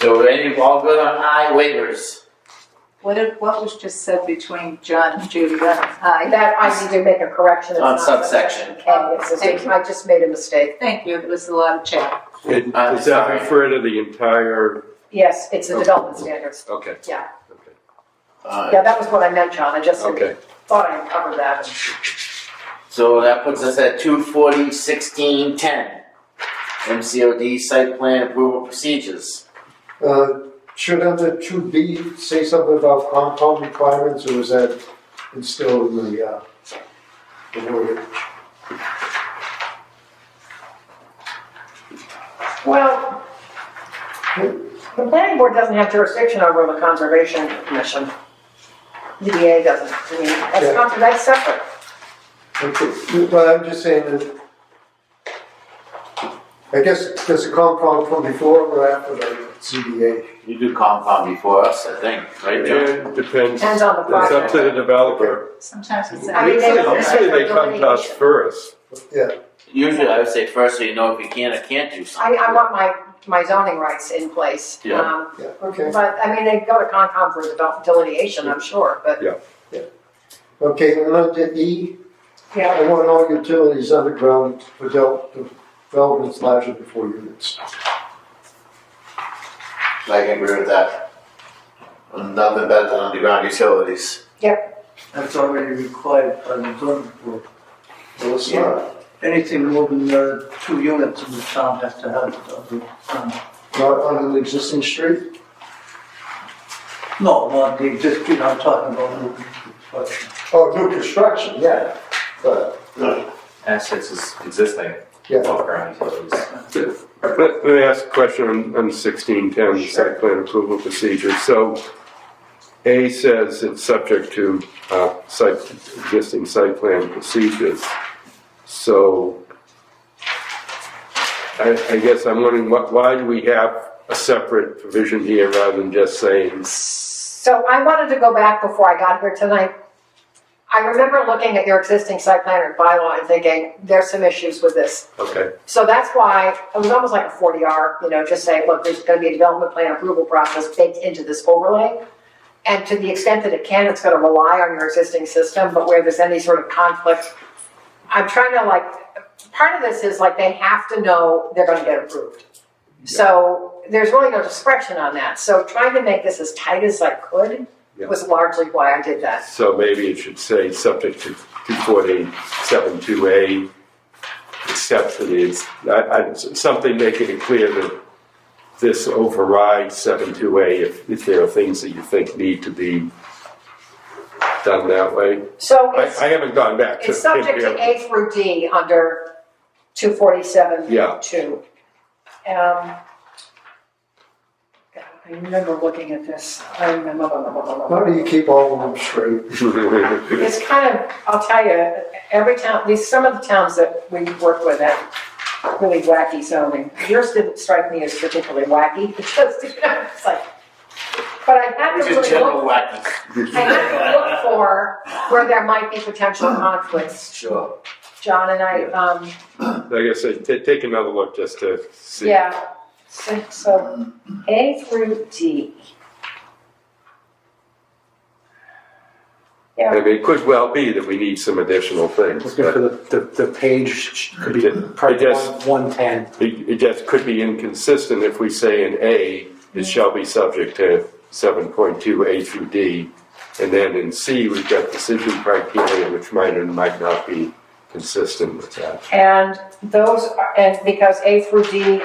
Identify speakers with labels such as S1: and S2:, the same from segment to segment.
S1: So any, all good on I waivers?
S2: What, if- what was just said between John and Judy, that was high.
S3: That I need to make a correction. It's
S1: On
S3: not-
S1: subsection.
S3: And it's a- I just made a mistake.
S2: Thank you, it was a lot of chat.
S4: It-
S1: I'm
S4: Does that
S1: sorry.
S4: refer to the entire,
S3: Yes, it's the
S4: Okay.
S3: development standards.
S4: okay.
S3: Yeah.
S4: Okay.
S1: Uh,
S3: Yeah, that was what I meant, John. I just
S4: Okay.
S3: thought I covered that.
S1: So that puts us at two forty sixteen ten. MCOD site plan approval procedures.
S5: Uh, Should under two B say something about compound requirements, or was that instilled in the, uh, the order?
S3: Well, the planning board doesn't have jurisdiction over the conservation commission. DDA doesn't. I mean, that's
S5: Yeah.
S3: not, that's separate.
S5: Okay, Well, I'm just saying that, I guess, does the compound come before or after the CBA?
S1: You do compound before us, I think, right, John?
S4: It depends,
S3: Depends on the
S4: it's up
S3: project.
S4: to the developer.
S2: Sometimes it's.
S3: I mean, they don't-
S4: Usually uh, they come to us first.
S1: Usually I would say first so you know if you can or can't do
S3: I,
S1: something.
S3: I want my, my zoning rights in place.
S1: Yeah.
S3: Um,
S5: Yeah, okay.
S3: But, I mean, they go to Concom for devel- delineation, I'm sure, but.
S5: Okay, and under E,
S3: Yeah.
S5: I want all utilities underground for del- developments larger than four units.
S1: I can agree with that. Nothing better than underground utilities.
S6: That's already required by the zoning board.
S5: Well, it's not,
S6: Anything more than uh, two units in the town has to have it. on the town.
S5: not on an existing street?
S6: No, not the existing, I'm talking about new construction.
S5: Oh, new construction, yeah, but,
S7: assets is existing
S5: yeah.
S7: above-ground utilities.
S4: Let let me ask a question on- on sixteen ten, the
S5: Sure.
S4: site plan approval procedure. So A says it's subject to uh, site, existing site plan procedures. So I, I guess I'm wondering, wh- why do we have a separate provision here rather than just saying
S3: So I wanted to go back before I got here tonight. I remember looking at your existing site plan and bylaw and thinking, there's some issues with this.
S4: Okay,
S3: So that's why it was almost like a 40R, you know, just saying, look, there's going to be a development plan approval process baked into this overlay. And to the extent that it can, it's going to rely on your existing system, but where there's any sort of conflict, I'm trying to like, part of this is like they have to know they're going to get approved. So there's really no discretion on that. So trying to make this as tight as I could
S4: Yeah.
S3: was largely why I did that.
S4: so maybe it should say subject to two forty seven two A, except for the, I, I, something making it clear that this overrides seven two A if, if there are things that you think need to be done that way.
S3: So
S4: I,
S3: it's,
S4: I haven't gone back to.
S3: it's subject to A through D under 247
S4: Yeah,
S3: two. Um, God, I remember looking at this. I remember. blah, blah, blah, blah, blah.
S5: How do you keep all of them straight?
S3: It's kind of, I'll tell you, every town, these, some of the towns that we work with have really wacky zoning. Yours didn't strike me as particularly wacky, because, you know, it's like, but I had to
S1: It's
S3: really
S1: just general
S3: look,
S1: wacky.
S3: I had to look for where there might be potential conflicts.
S1: Sure.
S3: John and I, um,
S4: like I said, ta- take another look just to see.
S3: yeah, so, so A through D.
S4: I mean, it could well be that we need some additional things,
S8: Looking for
S4: but
S8: the, the, the page, could be
S4: It-
S8: probably
S4: it just-
S8: one, one ten.
S4: it, it just could be inconsistent if we say in A, it shall be subject to seven point two A through D. And then in C, we've got decision criteria, which might and might not be consistent with that.
S3: And those, are- and because A through D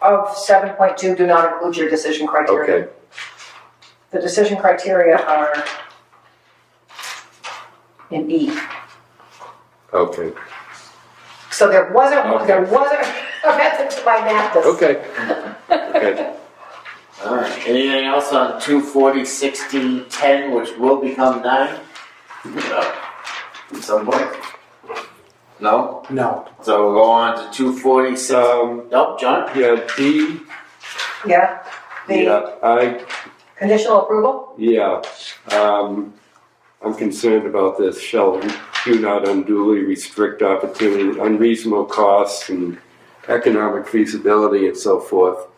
S3: of seven point two do not include your decision criteria.
S4: Okay,
S3: The decision criteria are in E.
S4: okay,
S3: So there wasn't,
S4: Okay.
S3: there wasn't a method to my madness.
S4: okay. Okay,
S1: Alright, anything else on two forty sixteen ten, which will become nine? No. At some point? No?
S8: No.
S1: So we'll go on to two forty six,
S4: um, nope, John? yeah, D,
S3: Yeah, the
S4: yeah, I
S3: conditional approval?
S4: Yeah, um, I'm concerned about this, shall do not unduly restrict opportunity, unreasonable costs and economic feasibility and so forth.